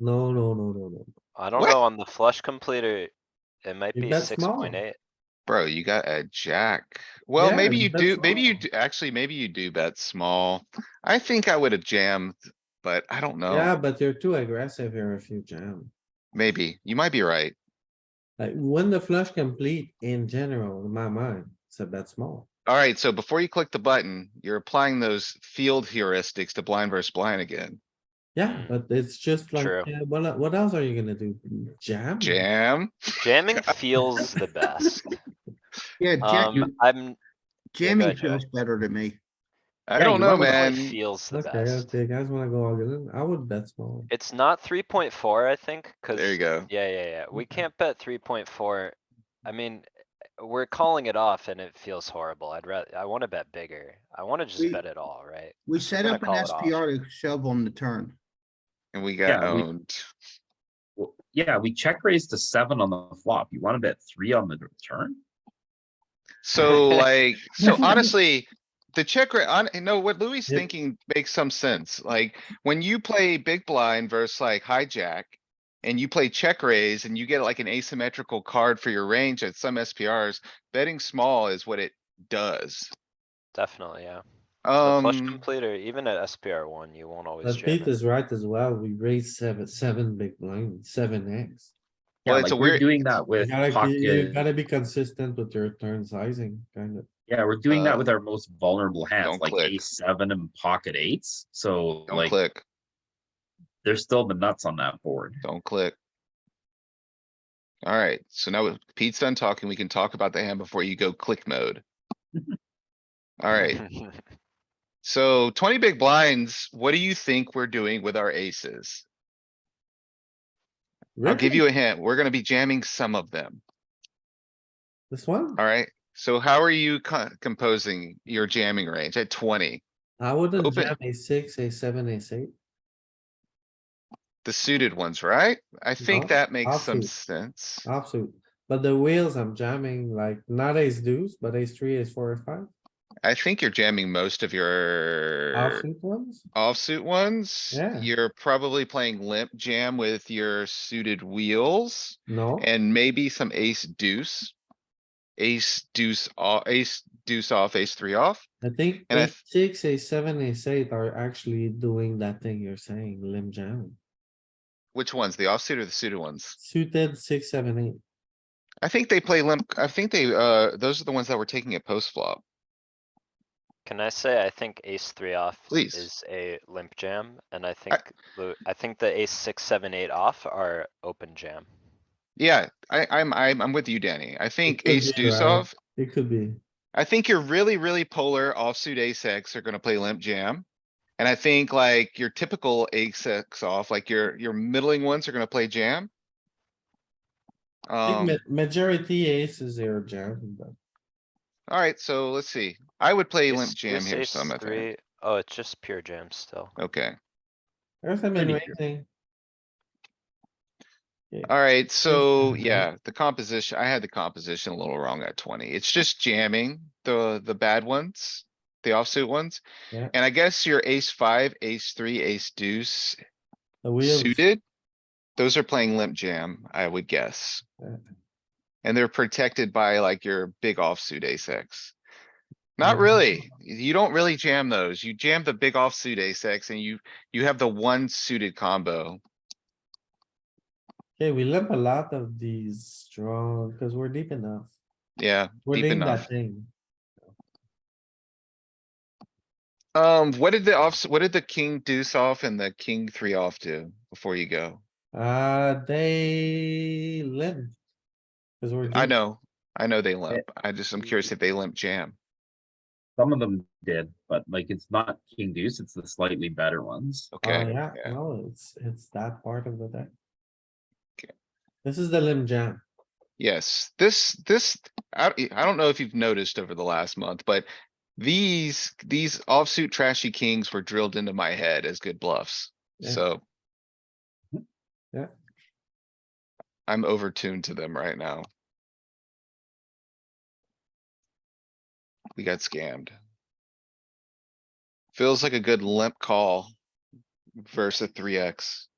No, no, no, no, no. I don't What? know, on the flush completer, it might You be bet six point eight. Bro, you got a jack. Well, Yeah, maybe you you bet do, maybe you, small. do- actually, maybe you do bet small. I think I would have jammed, but I don't Yeah, know. but you're too aggressive here if you jam. Maybe. You might be right. Like when the flush complete in general, in my mind, it's a bet small. Alright, so before you click the button, you're applying those field heuristics to blind versus blind again. Yeah, but it's just like, True. yeah, what, el- what else are you gonna do? Hmm. Jam? Jam? Jamming feels the best. Yeah, jam- Um, I'm, jamming ahead, Joey. feels better to me. I Yeah, don't you know, might wanna it man. feels the Okay, if best. the guys wanna go all in, I would bet small. It's not three point four, I think, cuz. There you go. Yeah, yeah, yeah. We Okay. can't bet three point four. I mean, we're calling it off and it feels horrible. I'd rather, I wanna bet bigger. I wanna We- just bet it all, right? We set gonna up an call it off. SPR to shove on the turn. And we Yeah, got we- owned. Well, yeah, we check raised to seven on the flop. You wanna bet three on the return? So like, so honestly, the check rate on, no, what Louis is Yep. thinking makes some sense. Like, when you play big blind versus like hijack. And you play check raise and you get like an asymmetrical card for your range at some SPRs, betting small is what it does. Definitely, yeah. The flush Um, completer, even at SPR one, you won't always But jam Pete it. is right as well. We raised seven, seven big blind, seven X. Yeah, Well, it's a like we're weird- doing that You with gotta, be- you pocket. gotta be consistent with your turn sizing, kind of. Yeah, we're doing that with Uh, our most vulnerable hands, don't like click. ace seven and pocket eights. So don't like, click, there's still the nuts on that board. don't click. Alright, so now with Pete's done talking, we can talk about the hand before you go click mode. Alright, So twenty big blinds, what do you think we're doing with our aces? I'll give Really? you a hint. We're gonna be jamming some of them, This one, alright? So how are you co- composing your jamming range at twenty? I wouldn't Open. jam a six, a seven, a eight. The suited ones, right? I think No, that makes some offsuit. Uh, sense. Absolute, but the wheels I'm jamming, like not ace deuce, but ace three, ace four, ace five, I think you're jamming most of your offsuit ones. offsuit ones. Yeah. You're probably playing limp jam with your suited wheels No, and maybe some ace deuce. Ace deuce, off, ace deuce off, ace three off. I think and I ace six, ace seven, ace eight are actually doing that thing you're saying, limb jam. Which ones? The offsuit or the suited ones? Suited six, seven, eight. I think they play limp, I think they, uh, those are the ones that were taking it post flop. Can I say, I think ace three off Please. is a limp jam, and I think, the- I think the ace six, seven, eight off are open jam. Yeah, I, I'm, I'm, I'm with you, Danny. I think could ace be, deuce right? off. It could be. I think your really, really polar offsuit ace X are gonna play limp jam. And I think like your typical ace X off, like your, your middling ones are gonna play jam. I think Um, ma- Majority aces are jamming, but alright, so let's see. I would play Ace limp jam deuce, here ace some, I think. three- Oh, it's just pure jam still. Okay, there's some Pretty raising. alright, so Mhm. yeah, the composition, I had the composition a little wrong at twenty. It's just jamming the, the bad ones. The offsuit ones. Yeah. And I guess your ace five, ace three, ace deuce The wheels, suited. Those are playing limp jam, I would guess. Yeah. And they're protected by like your big offsuit ace X. Not Yeah. really. You don't really jam those. You jam the big offsuit ace X and you, you have the one suited combo. okay, we limp a lot of these strong, cause we're deep enough. Yeah, We're Deep doing that enough. thing. um, what did the offs, what did the king deuce off and the king three off do before you go? Uh, they limp. Cause we're. I deep. know, I know they limp. I just, I'm curious if they limp jam. Some of them did, but like it's not king deuce, it's the slightly better ones. Oh, Okay. yeah, yeah. no, it's, it's that part of the deck. Okay. This is the limb jam. Yes, this, this, I, I don't know if you've noticed over the last month, but these, these offsuit trashy kings were drilled into my head as good bluffs, Yeah. Mm-hmm. so. Yeah. I'm over tuned to them right now. We got scammed. Feels like a good limp call versus a three X.